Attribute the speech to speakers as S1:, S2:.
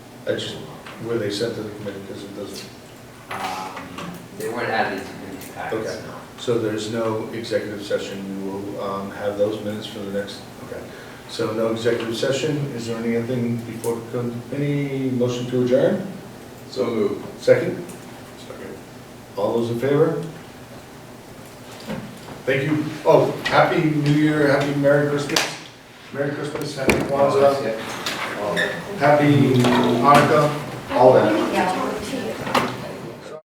S1: That's just where they sent to the committee, because it doesn't,
S2: Um, They weren't added to the packets,
S1: Okay.
S2: no.
S1: so there's no executive session, we will um, have those minutes for the next, okay. So no executive session, is there anything before, the committee? motion to adjourn?
S3: So moved.
S1: Second,
S3: Second.
S1: all those in favor? Thank you, oh, happy New Year, happy Merry Christmas, Merry Christmas, Happy Kwanzaa,
S2: Yeah. All that.
S1: Happy Hanukkah, all that.
S4: Yeah.